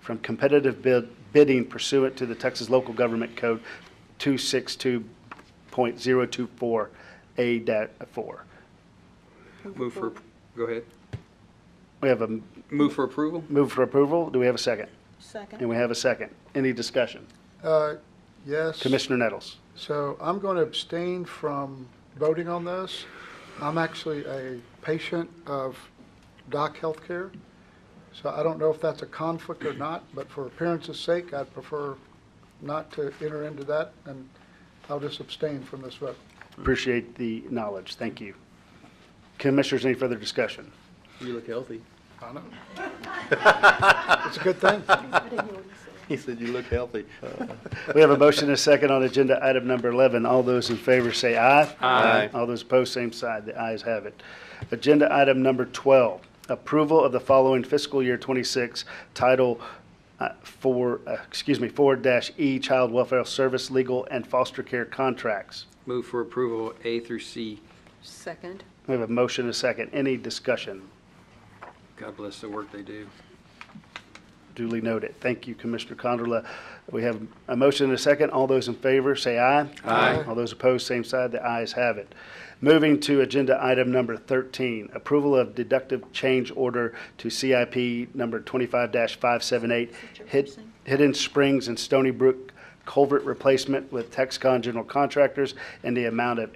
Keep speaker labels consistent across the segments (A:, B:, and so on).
A: from competitive bid, bidding pursuant to the Texas Local Government Code 262.024A-4.
B: Move for, go ahead.
A: We have a
B: Move for approval?
A: move for approval. Do we have a second? And
C: Second.
A: we have a second. Any discussion?
D: Uh, Yes.
A: Commissioner Nettles?
D: So I'm going to abstain from voting on this. I'm actually a patient of Doc Healthcare, so I don't know if that's a conflict or not, but for appearance's sake, I'd prefer not to enter into that, and I'll just abstain from this vote.
A: Appreciate the knowledge. Thank you. Commissioners, any further discussion?
B: You look healthy.
D: I know. It's a good thing.
B: He said you look healthy.
A: We have a motion and a second on agenda item number 11. All those in favor say aye.
B: Aye.
A: All those opposed, same side. The ayes have it. Agenda item number 12, approval of the following fiscal year 26 Title uh, 4, uh, excuse me, 4-E Child Welfare Service Legal and Foster Care Contracts.
B: Move for approval A through C.
C: Second.
A: We have a motion and a second. Any discussion?
B: God bless the work they do.
A: Duly noted. Thank you, Commissioner Condola. We have a motion and a second. All those in favor, say aye.
B: Aye.
A: All those opposed, same side. The ayes have it. Moving to agenda item number 13, approval of deductive change order to CIP number 25-578, Hid- Hidden Springs and Stony Brook culvert replacement with Texcon General Contractors in the amount of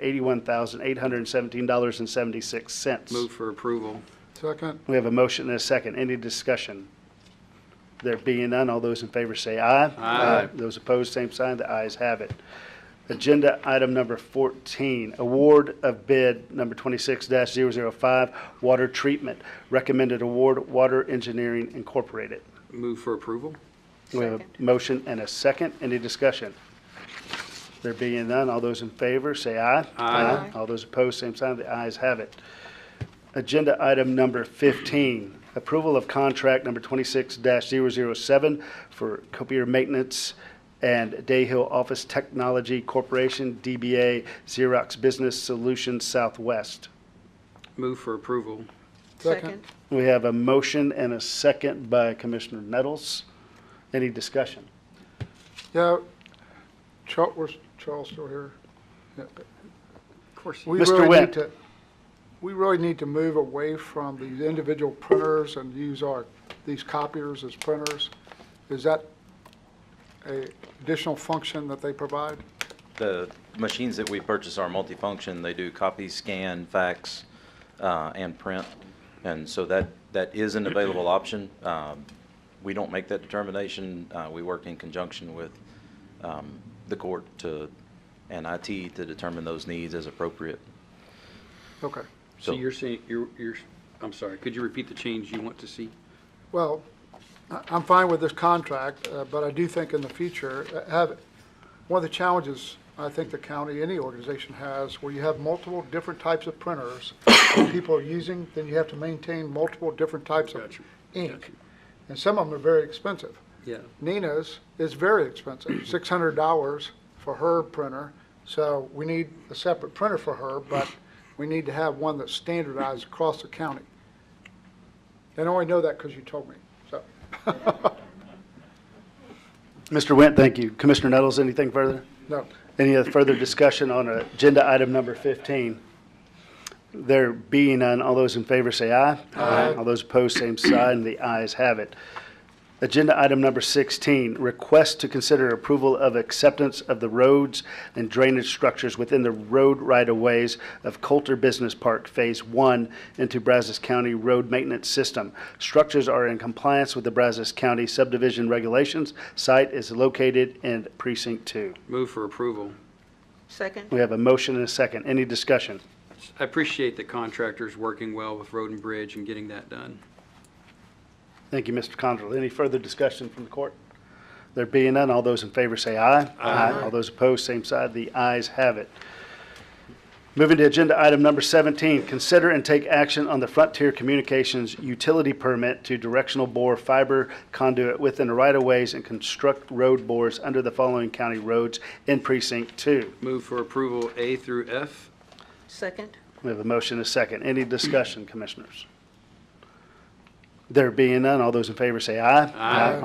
A: $81,817.76.
B: Move for approval.
D: Second,
A: We have a motion and a second. Any discussion? There being none, all those in favor say aye.
B: Aye.
A: Those opposed, same sign. The ayes have it. Agenda item number 14, award of bid number 26-005, water treatment. Recommended award, Water Engineering Incorporated.
B: Move for approval?
A: We have a
C: Second.
A: motion and a second. Any discussion? There being none, all those in favor, say aye.
B: Aye.
A: All those opposed, same sign. The ayes have it. Agenda item number 15, approval of contract number 26-007 for copier maintenance and Dayhill Office Technology Corporation, DBA Xerox Business Solutions Southwest.
B: Move for approval.
D: Second.
A: We have a motion and a second by Commissioner Nettles. Any discussion?
D: yeah, Charles, where's Charles still here? Yeah.
B: Of course.
D: We
A: Mr.
D: really
A: Wendt.
D: need to, we really need to move away from these individual printers and use our, these copiers as printers. Is that a additional function that they provide?
E: The machines that we purchase are multifunction. They do copy, scan, fax, uh, and print. And so that, that is an available option. Um, We don't make that determination. Uh, We work in conjunction with um, the court to, and IT to determine those needs as appropriate.
D: Okay,
B: So
E: So-
B: you're saying, you're, you're, I'm sorry, could you repeat the change you want to see?
D: well, I- I'm fine with this contract, uh, but I do think in the future, uh, have, one of the challenges I think the county, any organization has, where you have multiple different types of printers that people are using, then you have to maintain multiple different types of
B: Gotcha.
D: ink.
B: Gotcha.
D: And some of them are very expensive.
B: Yeah.
D: Nina's is very expensive, six hundred dollars for her printer. So we need a separate printer for her, but we need to have one that's standardized across the county. And I only know that because you told me, so.
A: Mr. Went, thank you. Commissioner Nettles, anything further?
D: No,
A: Any other further discussion on agenda item number 15? There being none, all those in favor say aye. Aye. All those opposed, same sign. The ayes have it. Agenda item number 16, request to consider approval of acceptance of the roads and drainage structures within the road right-of-ways of Coulter Business Park Phase 1 into Brazos County Road Maintenance System. Structures are in compliance with the Brazos County subdivision regulations. Site is located in Precinct 2.
B: Move for approval.
C: Second.
A: We have a motion and a second. Any discussion?
B: I appreciate the contractors working well with Road and Bridge and getting that done.
A: Thank you, Mr. Condrell. Any further discussion from the court? There being none, all those in favor say aye. Aye. All those opposed, same side. The ayes have it. Moving to agenda item number 17, consider and take action on the Frontier Communications utility permit to directional bore fiber conduit within the right-of-ways and construct road bores under the following county roads in Precinct 2.
B: Move for approval A through F.
C: Second.
A: We have a motion and a second. Any discussion, commissioners? There being none, all those in favor say aye.
B: Aye.
A: All